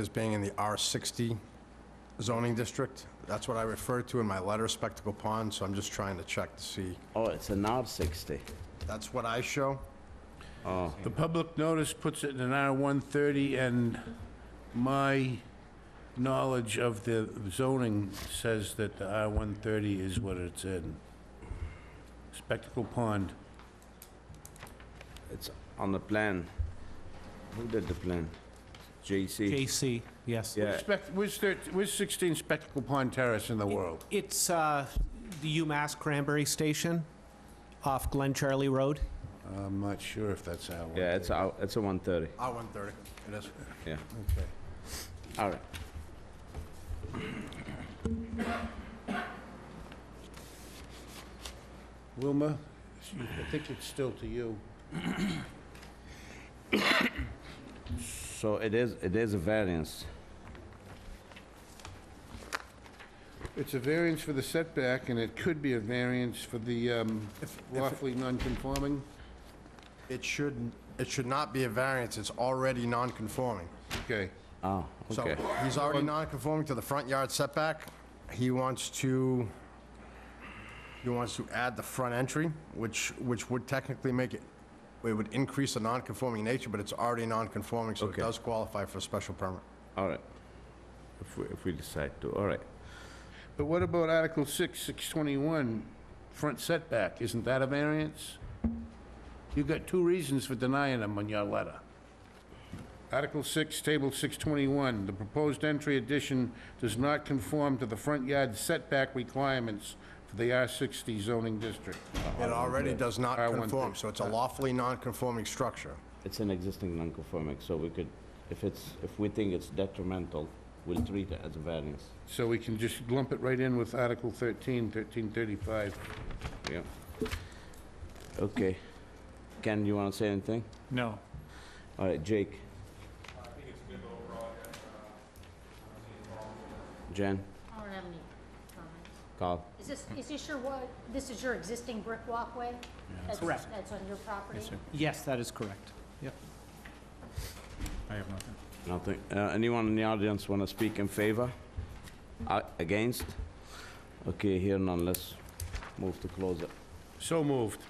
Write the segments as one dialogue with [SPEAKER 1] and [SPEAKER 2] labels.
[SPEAKER 1] as being in the R60 zoning district. That's what I referred to in my letter, Spectacle Pond, so I'm just trying to check to see.
[SPEAKER 2] Oh, it's an R60.
[SPEAKER 1] That's what I show?
[SPEAKER 2] Oh,
[SPEAKER 3] The public notice puts it in an R130, and my knowledge of the zoning says that the R130 is what it's in. Spectacle Pond.
[SPEAKER 2] it's on the plan. Who did the plan? JC?
[SPEAKER 4] JC, yes.
[SPEAKER 2] Yeah,
[SPEAKER 3] Spec- Where's thir- where's 16 Spectacle Pond Terrace in the world?
[SPEAKER 4] It's uh, the UMass Cranberry Station off Glen Charlie Road.
[SPEAKER 3] I'm not sure if that's our one.
[SPEAKER 2] yeah, it's a, it's a 130,
[SPEAKER 1] R130, it is.
[SPEAKER 2] yeah.
[SPEAKER 3] Okay.
[SPEAKER 2] All right.
[SPEAKER 3] Wilma, I think it's still to you.
[SPEAKER 2] So it is, it is a variance.
[SPEAKER 3] It's a variance for the setback, and it could be a variance for the um, roughly non-conforming.
[SPEAKER 1] It should, it should not be a variance, it's already non-conforming.
[SPEAKER 3] Okay.
[SPEAKER 2] Oh,
[SPEAKER 1] So
[SPEAKER 2] okay.
[SPEAKER 1] he's already non-conforming to the front yard setback. He wants to, he wants to add the front entry, which, which would technically make it, it would increase the non-conforming nature, but it's already non-conforming, so it
[SPEAKER 2] Okay.
[SPEAKER 1] does qualify for a special permit.
[SPEAKER 2] All right. If we, if we decide to, all right.
[SPEAKER 3] But what about Article 6, 621, front setback? Isn't that a variance? You've got two reasons for denying them on your letter. Article 6, Table 621, the proposed entry addition does not conform to the front yard setback requirements for the R60 zoning district.
[SPEAKER 1] It already does not
[SPEAKER 3] I want
[SPEAKER 1] conform,
[SPEAKER 3] the-
[SPEAKER 1] so it's a lawfully non-conforming structure.
[SPEAKER 2] It's an existing non-conforming, so we could, if it's, if we think it's detrimental, we'll treat it as a variance.
[SPEAKER 3] So we can just lump it right in with Article 13, 1335.
[SPEAKER 2] Yeah. Okay. Ken, you want to say anything?
[SPEAKER 5] No.
[SPEAKER 2] All right, Jake? Jen?
[SPEAKER 6] I don't have any comment.
[SPEAKER 2] Carl?
[SPEAKER 6] Is this, is this your, wa- this is your existing brick walkway? That's-
[SPEAKER 4] Correct.
[SPEAKER 6] That's on your property?
[SPEAKER 4] Yes, that is correct. Yep.
[SPEAKER 5] I have nothing.
[SPEAKER 2] Nothing. Uh, Anyone in the audience want to speak in favor? A- Against? Okay, here none, let's move to close it.
[SPEAKER 3] So moved.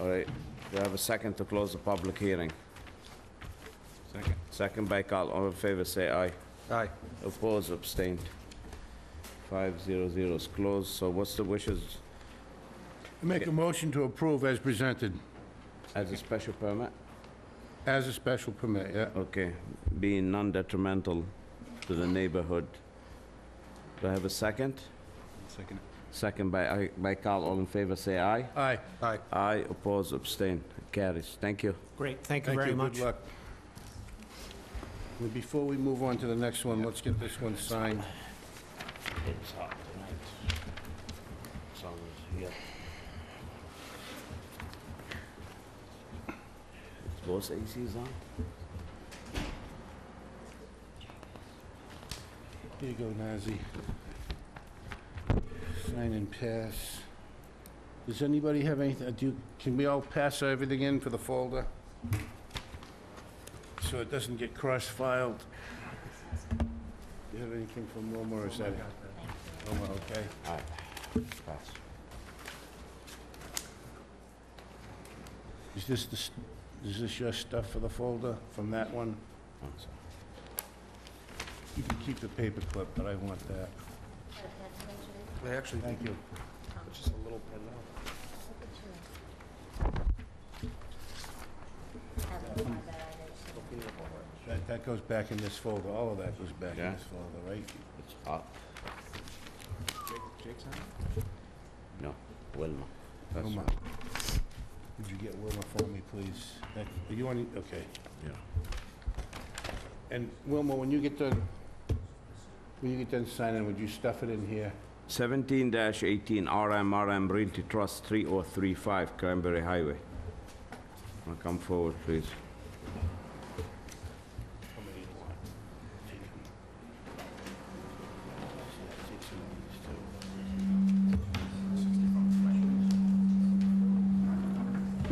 [SPEAKER 2] All right, do I have a second to close the public hearing? Second. Second by Carl, all in favor, say aye.
[SPEAKER 1] Aye.
[SPEAKER 2] Opposed, abstained. Five zero zero is closed, so what's the wishes
[SPEAKER 3] Make a motion to approve as presented,
[SPEAKER 2] as a special permit?
[SPEAKER 3] as a special permit, yeah.
[SPEAKER 2] Okay, being non-detrimental to the neighborhood. Do I have a second?
[SPEAKER 5] Second.
[SPEAKER 2] Second by, I- by Carl, all in favor, say aye.
[SPEAKER 3] Aye.
[SPEAKER 1] Aye.
[SPEAKER 2] Aye, oppose, abstain, carries. Thank you.
[SPEAKER 4] Great, thank you
[SPEAKER 3] Thank
[SPEAKER 4] very
[SPEAKER 3] you,
[SPEAKER 4] much.
[SPEAKER 3] good luck. Well, Before we move on to the next one, let's get this one signed.
[SPEAKER 2] It's hot tonight. Sun is here. Is both ACs on?
[SPEAKER 3] Here you go, Nazi. Sign and pass. Does anybody have anything, do, you- can we all pass everything in for the folder? So it doesn't get cross-filed? Do you have anything from Wilma or is that? Wilma, okay.
[SPEAKER 2] Aye. Pass.
[SPEAKER 3] Is this the, s- is this your stuff for the folder from that one?
[SPEAKER 2] One sec.
[SPEAKER 3] You can keep the paperclip, but I want that.
[SPEAKER 1] They actually,
[SPEAKER 3] Thank you.
[SPEAKER 1] it's just a little pen now.
[SPEAKER 3] That, that goes back in this folder, all of that goes back in
[SPEAKER 2] Yeah.
[SPEAKER 3] this folder, right?
[SPEAKER 2] It's hot. No, Wilma. That's
[SPEAKER 3] Wilma.
[SPEAKER 2] right.
[SPEAKER 3] Would you get Wilma for me, please? That- Are you on, okay.
[SPEAKER 2] Yeah.
[SPEAKER 3] And Wilma, when you get done, when you get done signing, would you stuff it in here?
[SPEAKER 2] 17-18 RM RM Realty Trust 3035 Cranberry Highway. Now Come forward, please.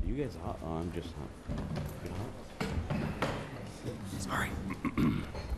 [SPEAKER 2] You guys are, oh, I'm just hot. You hot?
[SPEAKER 4] Sorry.